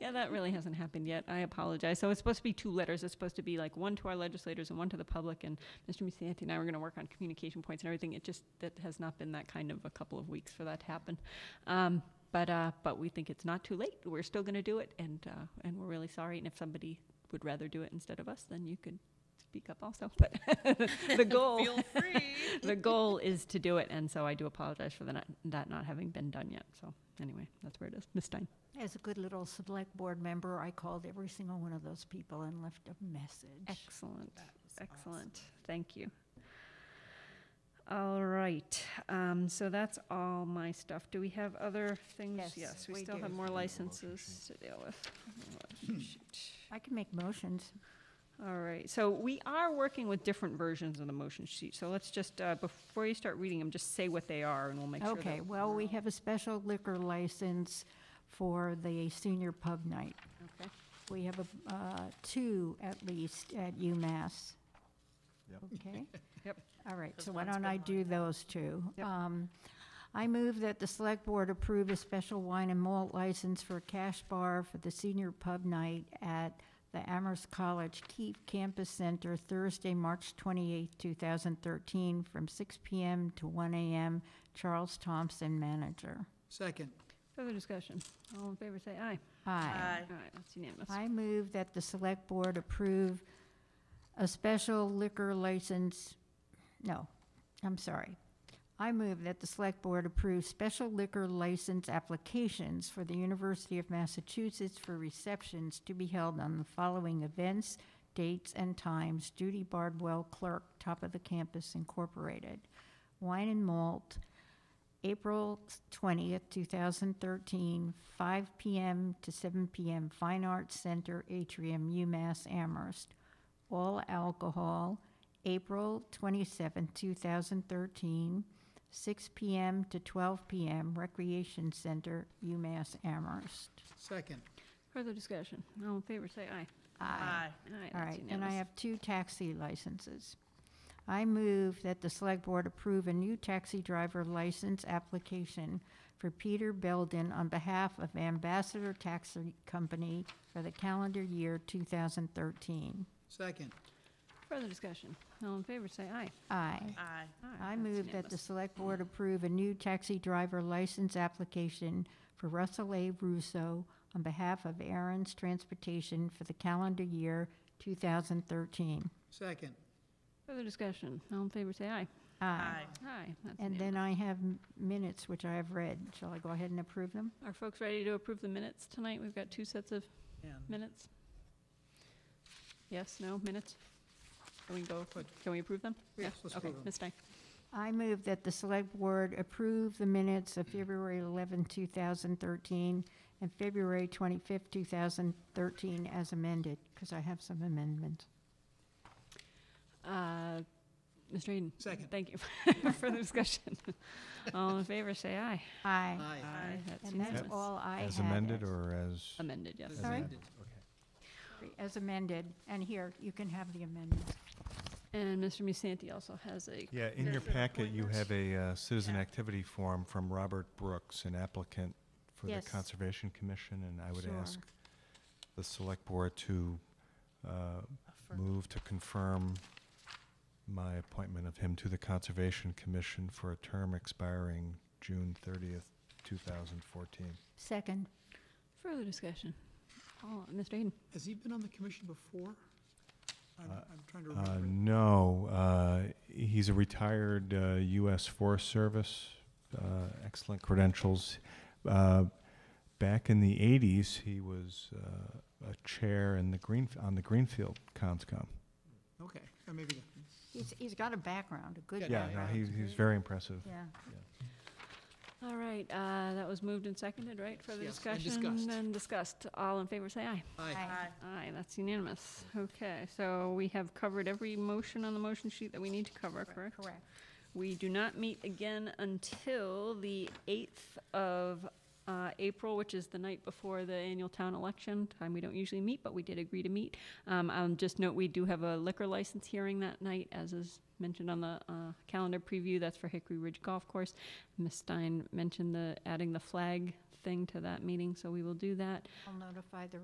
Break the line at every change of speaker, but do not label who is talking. yeah, that really hasn't happened yet. I apologize. So it's supposed to be two letters. It's supposed to be like one to our legislators and one to the public. And Mr. Musanti and I were going to work on communication points and everything. It just, that has not been that kind of a couple of weeks for that to happen. Um, but, uh, but we think it's not too late. We're still going to do it and, uh, and we're really sorry. And if somebody would rather do it instead of us, then you could speak up also. But the goal,
Feel free.
the goal is to do it. And so I do apologize for the not, that not having been done yet. So anyway, that's where it is. Ms. Stein.
As a good little select board member, I called every single one of those people and left a message.
Excellent.
That was
Excellent. Thank you. All right. Um, so that's all my stuff. Do we have other things?
Yes,
we
we
still
do.
have more
Need a motion Hmm.
licenses to deal with.
I can make motions.
All right. So we are working with different versions of the motion sheet. So let's just, uh, before you start reading them, just say what they are and we'll make sure.
Okay,
that-
well, we have a special liquor license for the senior pub night.
Okay.
We have a, uh, two at least at UMass.
Yep.
Okay?
Yep.
All right,
Because
so why
one's
don't I
been lined
do those two?
Yep.
Um, I move that the select board approve a special wine and malt license for a cash bar for the senior pub night at the Amherst College Keep Campus Center Thursday, March twenty-eighth, two thousand thirteen, from six PM to one AM. Charles Thompson, manager.
Second,
Further discussion. All in favor, say aye.
Aye.
Aye.
All right. That's unanimous.
I move that the select board approve a special liquor license, no, I'm sorry. I move that the select board approve special liquor license applications for the University of Massachusetts for receptions to be held on the following events, dates, and times. Judy Bardwell Clerk, Top of the Campus Incorporated. Wine and Malt, April 20th, 2013, 5 p.m. to 7 p.m., Fine Arts Center, Atrium, UMass Amherst. All alcohol, April 27th, 2013, 6 p.m. to 12 p.m., Recreation Center, UMass Amherst.
second,
Further discussion. All in favor, say aye.
Aye.
All right.
All
that's
right, and I
unanimous.
have two taxi licenses. I move that the select board approve a new taxi driver license application for Peter Belden on behalf of Ambassador Taxi Company for the calendar year 2013.
second,
Further discussion. All in favor, say aye.
Aye.
Aye.
Aye,
I
that's
move that the
unanimous.
select board approve a new taxi driver license application for Russell A. Russo on behalf of Aaron's Transportation for the calendar year 2013.
second,
Further discussion. All in favor, say aye.
Aye.
Aye. that's
And then
unanimous.
I have m- minutes, which I have read. Shall I go ahead and approve them?
Are folks ready to approve the minutes tonight? We've got two sets of
and
minutes. Yes, no, minutes? Can we go,
But-
can we approve them?
Yes,
Yeah,
let's
Okay,
approve them.
Ms. Stein.
I move that the select board approve the minutes of February 11, 2013, and February 25, 2013 as amended, because I have some amendments.
Uh, Mr. Eden?
Second.
Thank you. Further discussion. All in favor, say aye.
Aye.
aye.
That's
And that's
unanimous.
all I had.
As amended or as?
Amended, yes.
As
Sorry?
amended.
As amended. And here, you can have the amendments.
And Mr. Musanti also has a,
Yeah, in your
There's an
packet, you have a uh, citizen
Yeah.
activity form from Robert Brooks, an applicant for the
Yes.
Conservation Commission, and I would
Sure.
ask the select board to uh, move to confirm my appointment of him to the Conservation Commission for a term expiring June 30th, 2014.
Second.
further discussion. All, Mr. Eden?
Has he been on the commission before? I'm,
Uh,
I'm trying to
Uh,
remember.
No, uh, he's a retired uh, U.S. Forest Service, uh, excellent credentials. Uh, Back in the 80s, he was uh, a chair in the green, on the Greenfield Conscom.
Okay, or maybe not.
He's, he's got a background, a good
Yeah,
Yeah,
background.
no, he's, he's very impressive.
Yeah.
All right, uh, that was moved and seconded, right? Further
Yes,
discussion?
and discussed.
And discussed. All in favor, say aye.
Aye,
Aye.
Aye, that's unanimous. Okay, so we have covered every motion on the motion sheet that we need to cover, correct?
Correct.
We do not meet again until the 8th of uh, April, which is the night before the annual town election, time we don't usually meet, but we did agree to meet. Um, I'll just note, we do have a liquor license hearing that night, as is mentioned on the uh, calendar preview, that's for Hickory Ridge Golf Course. Ms. Stein mentioned the, adding the flag thing to that meeting, so we will do that.
I'll notify the